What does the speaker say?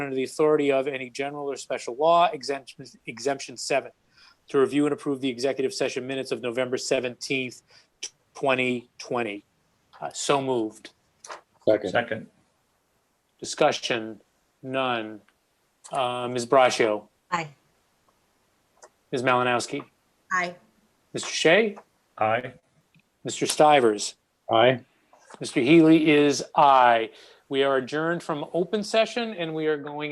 under the authority of any general or special law, exemption, exemption seven, to review and approve the executive session minutes of November seventeenth, twenty twenty. Uh, So moved. Second, Second, Discussion, none. Uh, Ms. Braccio, Aye. Ms. Malinowski, Aye. Mr. Shea, aye. Mr. Stivers, aye. Mr. Healy is aye. We are adjourned from open session and we are going